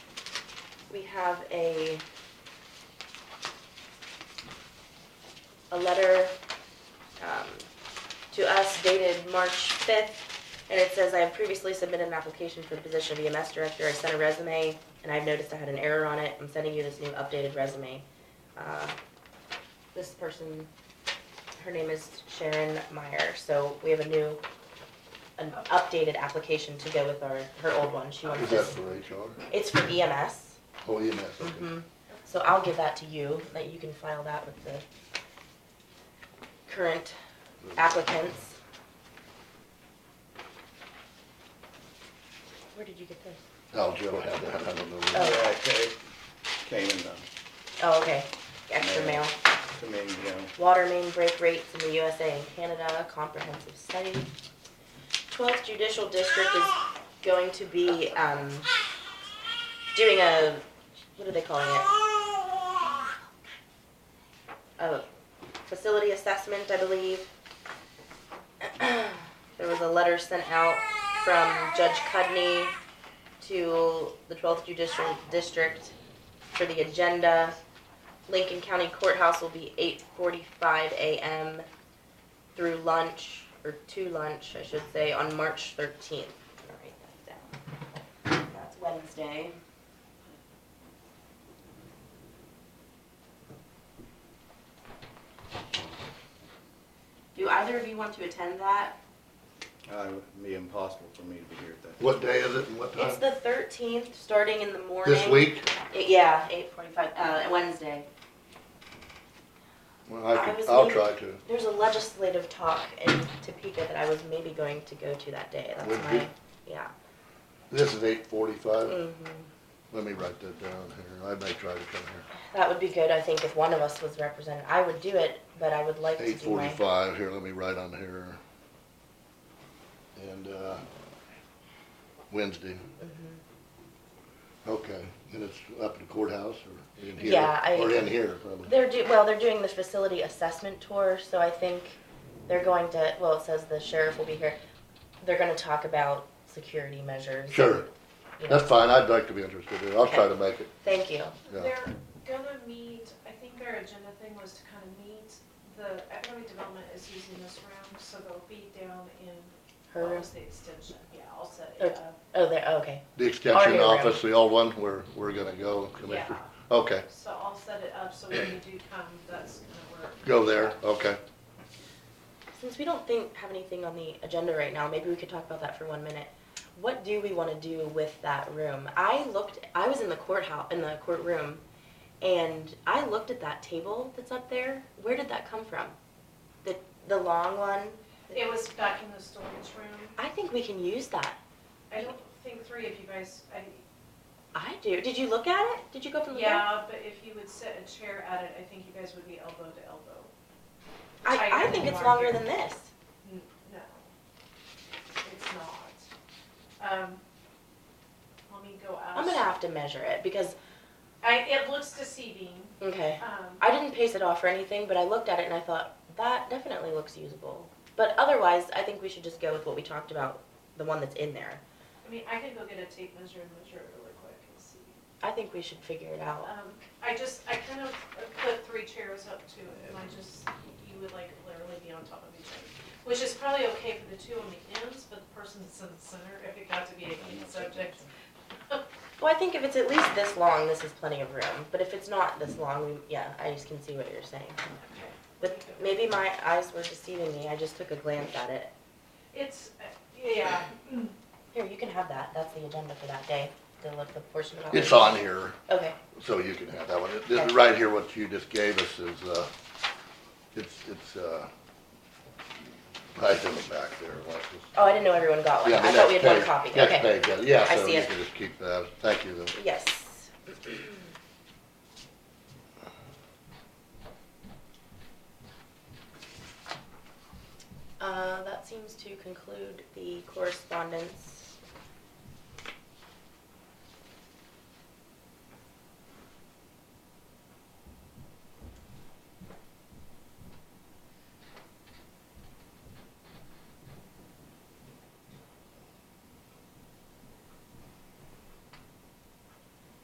we have a a letter um, to us dated March fifth, and it says, I have previously submitted an application for the position of EMS director. I sent a resume, and I've noticed I had an error on it. I'm sending you this new updated resume. Uh, This person, her name is Sharon Meyer, so we have a new, an updated application to go with our, her old one. She wants Is to that for HR? it's for E EMS. Oh, EMS, okay. Mhm. So I'll give that to you, that you can file that with the current Mm-hmm. applicants. Where did you get this? Oh, Joe had that, I don't know. Oh. where- Yeah, it came in the, Oh, okay, extra mail. to me, you know, Water main break rates in the USA and Canada, comprehensive study. Twelfth Judicial District is going to be, um, doing a, what are they calling it? A facility assessment, I believe. There was a letter sent out from Judge Cudney to the twelfth judicial district for the agenda. Lincoln County Courthouse will be eight forty-five AM through lunch, or to lunch, I should say, on March thirteenth. That's Wednesday. Do either of you want to attend that? uh, it would be impossible for me to be here at that. What day is it and what It's time? the thirteenth, starting in the morning. Uh, This week? Y- Yeah, eight forty-five, uh, Wednesday. Well, I I could, was I'll leaving. try to. There's a legislative talk in Topeka that I was maybe going to go to that day. That's Would my, you? yeah. This is eight forty-five. Mhm. Let me write that down here. I may try to come here. That would be good, I think, if one of us was represented. I would do it, but I would like to Eight do my. forty-five, here, let me write on here. And, uh, Wednesday. Mhm. Okay, and it's up at the courthouse or in here? Yeah, I- Or in here, probably. They're do, well, they're doing the facility assessment tour, so I think they're going to, well, it says the sheriff will be here. They're gonna talk about security measures. Sure, you know. that's fine, I'd like to be interested in it. I'll try to make it, Thank you. yeah. They're gonna meet, I think our agenda thing was to kind of meet, the economic development is using this room, so they'll be down in, Her, what room- was the extension? Yeah, I'll set Or- it up. oh, there, oh, okay. The extension Audio room. office, the old one, where we're gonna go, Commissioner? Okay, So I'll set it up, so when you do come, that's gonna work. go there, okay. Since we don't think, have anything on the agenda right now, maybe we could talk about that for one minute. What do we wanna do with that room? I looked, I was in the courthouse, in the courtroom, and I looked at that table that's up there. Where did that come from? The, the long one? It was back in the storage room. I think we can use that. I don't think three of you guys, I, I do. Did you look at it? Did you go up and look at it? yeah, but if you would sit a chair at it, I think you guys would be elbow to elbow. Tighter I, I than think you it's are longer here. than this. N- No, it's not. Um, let me go ask. I'm gonna have to measure it because, I, it looks deceiving, okay. um, I didn't pace it off or anything, but I looked at it and I thought, that definitely looks usable. But otherwise, I think we should just go with what we talked about, the one that's in there. I mean, I could go get a tape measure and measure it really quick and see. I think we should figure it out. Um, I just, I kind of put three chairs up to it, and I just, you would like literally be on top of each other. Which is probably okay for the two on the ends, but the person that's in the center, if it got to be a heat subject, Well, I think if it's at least this long, this is plenty of room. But if it's not this long, we, yeah, I just can see what you're saying. okay. But maybe my eyes were deceiving me. I just took a glance at it. It's, uh, yeah, Here, you can have that. That's the agenda for that day. The, the portion about. It's on here, Okay. so you can have that one. It- This, right here, what you just gave us is, uh, it's, it's, uh, right in the back there, Alexis. Oh, I didn't know everyone got one. Yeah, the I thought we next had one page. copy. Next Okay. page, yeah, yeah, I so see you it. can just keep that, thank you. though. Yes, Uh,